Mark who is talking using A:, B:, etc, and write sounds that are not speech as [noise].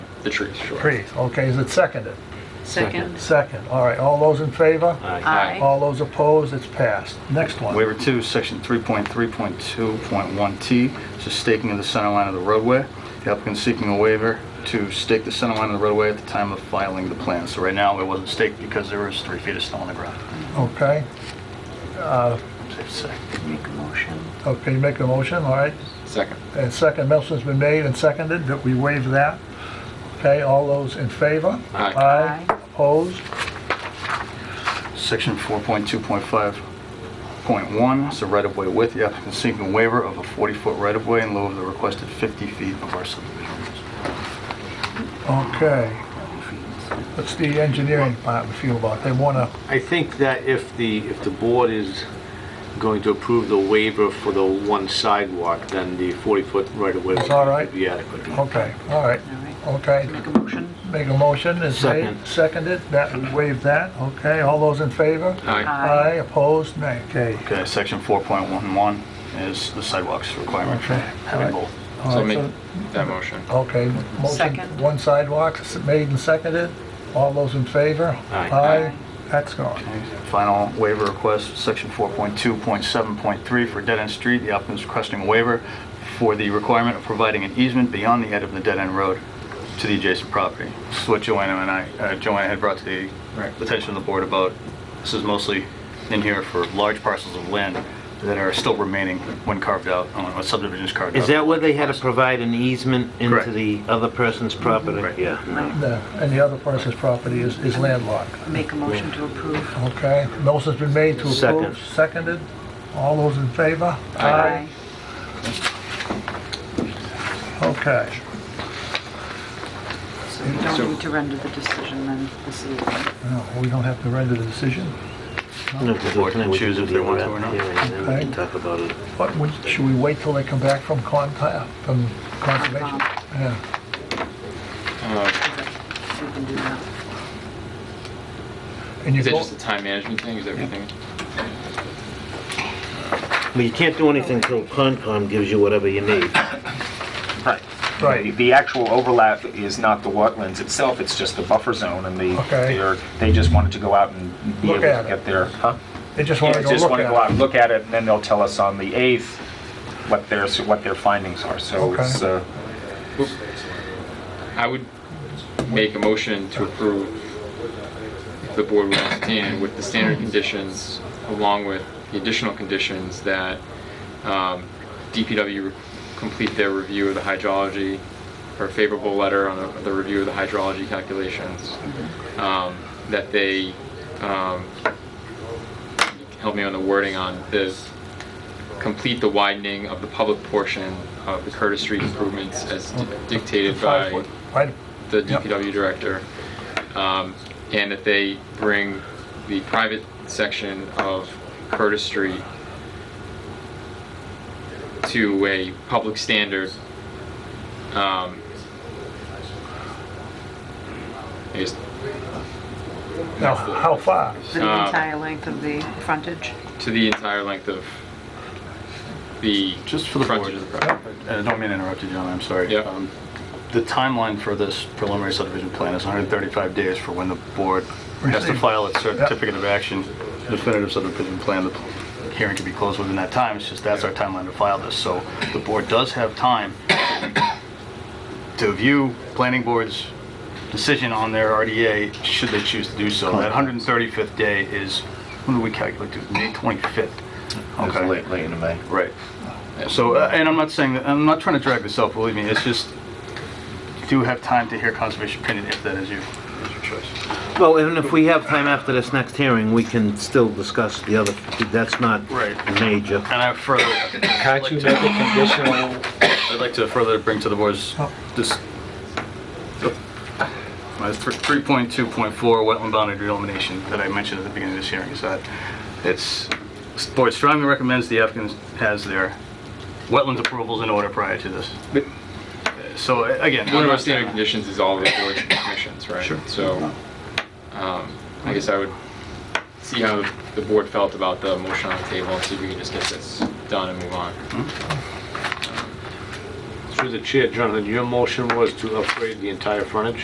A: The trees, sure.
B: trees. Okay, is it seconded?
C: Second.
B: Second. All right, all those in favor?
C: Aye.
B: All those opposed, it's passed. Next one.
D: Waiver 2, Section 3.3.2.1T, is the staking of the center line of the roadway. The applicant seeking a waiver to stake the center line of the roadway at the time of filing the plan. So right now, it wasn't staked because there was three feet of snow on the ground.
B: Okay,
D: Safe to say.
C: Make a motion.
B: okay, make a motion, all right?
A: Second.
B: And second, motion's been made and seconded that we waive that. Okay, all those in favor?
A: Aye.
B: Aye,
C: Aye.
B: opposed?
D: Section 4.2.5.1 is the right-of-way width. The applicant seeking a waiver of a 40-foot right-of-way in lieu of the requested 50 feet of our subdivision rules.
B: Okay. What's the engineering part we feel about? They want to,
E: I think that if the, if the board is going to approve the waiver for the one sidewalk, then the 40-foot right-of-way
B: It's all right?
E: would be adequate.
B: okay, all right,
C: All right.
B: okay.
C: Make a motion.
B: Make a motion, is made,
E: Second.
B: seconded, that, we waive that, okay, all those in favor?
A: Aye.
B: Aye, opposed, nay. Okay.
D: Okay, section 4.11 is the sidewalks requirement for
B: Okay,
D: having
B: all right.
D: both.
B: All
A: So
B: right,
A: make
B: so-
A: that motion.
B: Okay, motion,
C: Second.
B: one sidewalk, s- made and seconded, all those in favor?
E: Aye.
B: Aye, that's gone.
D: Final waiver request, section 4.2.7.3 for dead-end street. The applicant is requesting a waiver for the requirement of providing an easement beyond the head of the dead-end road to the adjacent property. This is what Joanna and I, uh, Joanna had brought to the attention of the board about, this is mostly in here for large parcels of land that are still remaining when carved out, uh, when subdivision is carved out.
F: Is that where they had to provide an easement into
D: Correct.
F: the other person's property?
D: Right.
F: Yeah, no.
B: No, And the other person's property is is landlocked,
C: Make a motion to approve.
B: okay? Motion's been made to
F: Second.
B: approve, seconded, all those in favor?
A: Aye.
B: Okay,
C: So we don't need to render the decision then this evening.
B: Now, we don't have to render the decision,
F: No, 'cause we
D: Board
F: can
D: can
F: always
D: choose
F: do
D: if
F: the
D: they want
F: other
D: to or not.
F: hearing, then we
B: Okay.
F: can talk about it.
B: but we- should we wait till they come back from Conti, from Conservation? Yeah.
A: Uh,
C: We can do that.
B: And you
A: Is that
B: go-
A: just a time management thing? Is everything?
F: Well, you can't do anything until Concom gives you whatever you need.
G: Right.
B: Right.
G: The- The actual overlap is not the wetlands itself, it's just the buffer zone, and the,
B: Okay.
G: they're- they just wanted to go out and be
B: Look
G: able to
B: at it.
G: get their, huh?
B: They just want
G: Yeah,
B: to go
G: just
B: look
G: want to go out
B: at it.
G: and look at it, and then they'll tell us on the 8th what their, what their findings are, so
B: Okay.
G: it's, uh,
A: I would make a motion to approve if the board would entertain it with the standard conditions along with the additional conditions that um, DPW re- complete their review of the hydrology or favorable letter on the- the review of the hydrology calculations, um, that they, um, help me on the wording on this, complete the widening of the public portion of the Curtis Street improvements as di- dictated by
B: Five-foot. Right,
A: the
B: Yep.
A: DPW director, um, and that they bring the private section of Curtis Street to a public standard. um, I guess
B: now, how far?
C: The
A: Uh,
C: entire length of the frontage.
A: to the entire length of the
D: Just for the
A: frontage
D: board.
A: of the property.
D: And I Uh, don't mean to interrupt you, John, I'm sorry.
A: Yeah.
D: Um, The timeline for this preliminary subdivision plan is 135 days for when the board has to
B: Receive.
D: file its certificate of action, definitive subdivision plan, the hearing can be closed within that time, it's just that's our timeline to file this. So the board does have time to view planning board's decision on their RDA, should they choose to do so. That 135th day is, when do we calculate, to? May 25th?
G: it's
D: Okay.
G: late, late in May.
D: Right. So, uh, and I'm not saying, that I'm not trying to drag this out, believe me, it's just, do have time to hear conservation opinion if that is your, is your choice.
F: Well, and if we have time after this next hearing, we can still discuss the other, that's not
D: Right.
F: major.
D: And I further, I'd
E: Can't you make a conditional
D: like to further bring to the board's, this, my thr- 3.2.4 wetland boundary delineation that I mentioned at the beginning of this hearing, is that it's, this board strongly recommends the applicant has their wetlands approvals in order prior to this.
A: But-
D: So, a- again.
A: One
D: I'm
A: of our
D: not-
A: standard conditions is all the
D: [coughs]
A: village commissions, right?
D: Sure.
A: So, um, I guess I would see how the board felt about the motion on the table, and see if we can just get this done and move on.
E: through the chair, Jonathan, your motion was to upgrade the entire frontage?